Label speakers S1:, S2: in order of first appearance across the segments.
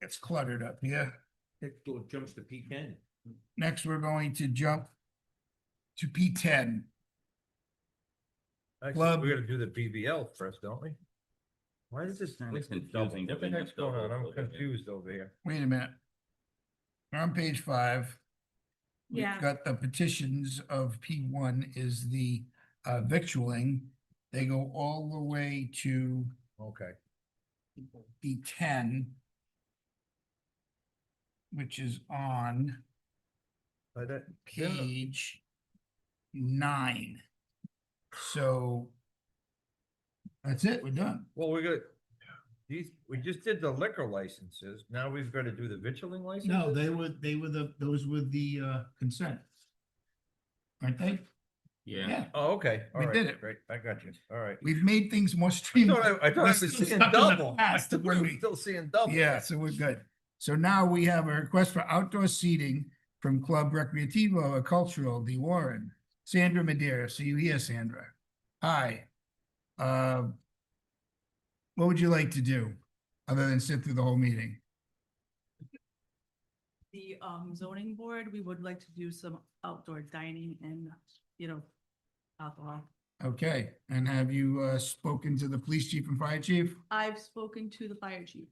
S1: It's cluttered up here.
S2: Next door jumps to P ten.
S1: Next, we're going to jump to P ten.
S3: Actually,
S1: Club.
S3: we're gonna do the BBL first, don't we? Why is this?
S4: It's
S3: listed
S4: confusing
S3: double? What the
S4: between
S3: heck's
S4: the double
S3: going on? I'm
S4: building, yeah.
S3: confused over here.
S1: Wait a minute. We're on page five. We've
S5: Yeah.
S1: Got the petitions of P one is the uh victualling. They go all the way to
S3: Okay,
S1: P ten. Which is on
S3: but uh, that, didn't the-
S1: page nine. So. That's it, we're done.
S3: well, we got, these, we just did the liquor licenses. Now we've got to do the vitrilling license?
S1: No, they were, they were the, those were the uh consent. Aren't they? Yeah,
S3: Oh, okay.
S1: We
S3: All
S1: did
S3: right,
S1: it.
S3: great. I got you. All right.
S1: we've made things more
S3: I
S1: streamlined.
S3: thought I, I thought I
S1: We're
S3: was
S1: still
S3: seeing
S1: stuck in the
S3: double. I
S1: past of
S3: thought I
S1: when
S3: was
S1: we-
S3: Still seeing double.
S1: Yeah, so we're good. So now we have a request for outdoor seating from Club Recreativo Cultural de Warren. Sandra Madeira, see you here, Sandra. Hi. Uh, What would you like to do, other than sit through the whole meeting?
S6: the um zoning board, we would like to do some outdoor dining and, you know, alcohol.
S1: Okay, and have you uh, spoken to the police chief and fire chief?
S6: I've spoken to the fire chief.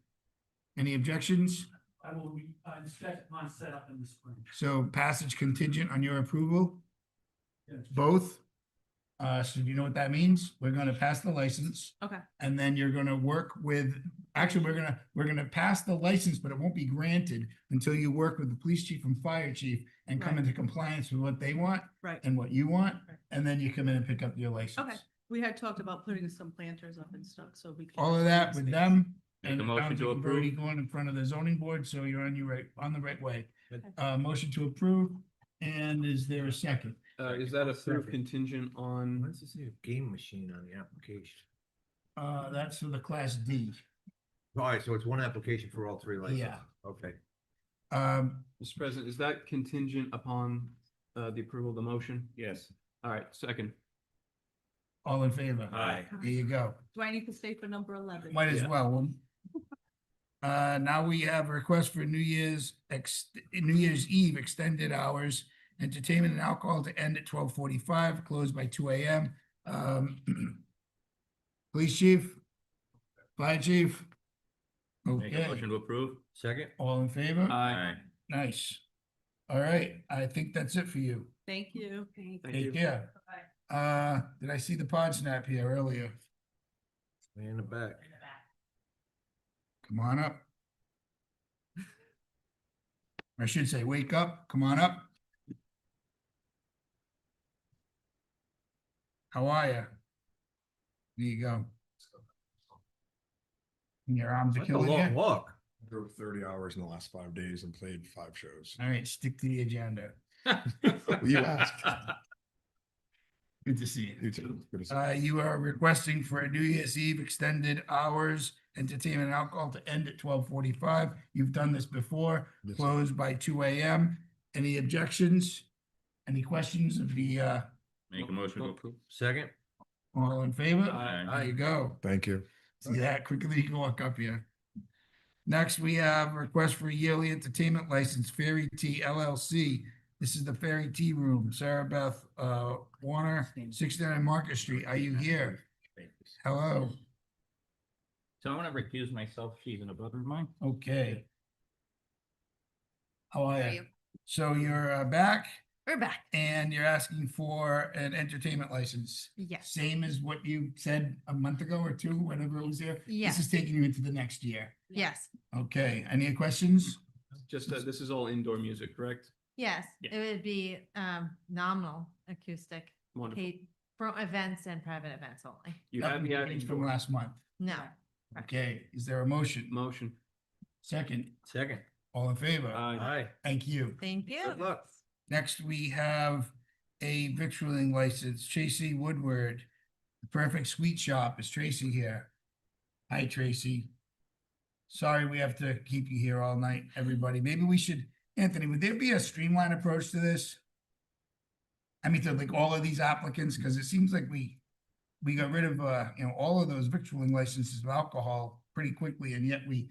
S1: Any objections?
S7: I will re- uh, inspect my setup in the spring.
S1: So passage contingent on your approval?
S7: Yes.
S1: Both? Uh, so do you know what that means? We're gonna pass the license.
S6: Okay.
S1: And then you're gonna work with, actually, we're gonna, we're gonna pass the license, but it won't be granted until you work with the police chief and fire chief and come
S6: Right.
S1: into compliance with what they want
S6: Right.
S1: and what you want,
S6: Right.
S1: and then you come in and pick up your license.
S6: We had talked about putting some planters up and stuff, so we. can-
S1: All of that with them.
S4: Make
S1: and
S4: a
S1: it sounds
S4: motion to
S1: like you've Already
S4: approve.
S1: going in front of the zoning board, so you're on your right, on the right way.
S3: Okay.
S1: Uh, motion to approve, and is there a second?
S4: Uh, is that a
S3: Second.
S4: proof contingent
S3: Why
S4: on,
S3: does it say a game machine on the application?
S1: Uh, that's for the class D.
S3: All right, so it's one application for all three licenses? Okay.
S1: Um,
S4: Mr. President, is that contingent upon, uh, the approval of the motion?
S2: Yes.
S4: All right, second.
S1: all in favor?
S4: Aye.
S1: There you go.
S6: Do I need to stay for number eleven?
S1: Might as
S4: Yeah.
S1: well. Well, Uh, now we have a request for New Year's ex, New Year's Eve extended hours. Entertainment and alcohol to end at twelve forty-five, closed by two AM. Um, police chief? Fire chief?
S4: Make a
S1: Okay,
S4: motion to approve?
S3: Second?
S1: all in favor?
S4: Aye.
S1: Nice. All right, I think that's it for you.
S6: Thank you.
S4: Thank you.
S1: Take care. Uh, did I see the pod snap here earlier?
S3: Way in the back.
S1: Come on up. I should say, wake up, come on up. How are you? There you go. And Your arms are
S3: That's a
S1: killing
S3: long
S1: you.
S3: walk.
S8: drove thirty hours in the last five days and played five shows.
S1: All right, stick to the agenda.
S8: You asked.
S1: Good to see you.
S8: You too. Good to see you.
S1: Uh, you are requesting for a New Year's Eve extended hours, entertainment and alcohol to end at twelve forty-five. You've done this before.
S8: Yes.
S1: closed by two AM. Any objections? Any questions of the, uh,
S4: Make a motion to approve.
S3: Second?
S1: all in favor?
S4: Aye.
S1: There you go.
S8: Thank you.
S1: See that quickly you can walk up here. Next, we have request for yearly entertainment license, Fairy Tea LLC. This is the Fairy Tea Room, Sarah Beth, uh, Warner, sixty-nine Market Street. Are you here? Hello,
S9: So I'm gonna recuse myself, she's an above mine.
S1: okay. How are
S5: Are
S1: you?
S5: you?
S1: So you're uh, back
S5: We're back.
S1: and you're asking for an entertainment license?
S5: Yes.
S1: same as what you said a month ago or two, whenever it was there. This
S5: Yes.
S1: is taking you into the next year.
S5: Yes.
S1: Okay, any questions?
S4: Just, uh, this is all indoor music, correct?
S5: Yes.
S4: Yeah.
S5: It would be um nominal acoustic
S4: Wonderful.
S5: paid for events and private events only.
S4: You had me at
S1: Nothing changed From
S4: indoor.
S1: last month.
S5: No.
S1: Okay, is there a motion?
S4: Motion.
S1: Second,
S3: Second.
S1: all in favor?
S4: Aye.
S3: Aye.
S1: Thank you.
S5: Thank you.
S3: Good luck.
S1: Next, we have a victualling license, Tracy Woodward. The Perfect Sweet Shop is Tracy here. Hi, Tracy. Sorry, we have to keep you here all night, everybody. Maybe we should, Anthony, would there be a streamlined approach to this? I mean, to like all of these applicants, because it seems like we, we got rid of, uh, you know, all of those victualling licenses of alcohol pretty quickly, and yet we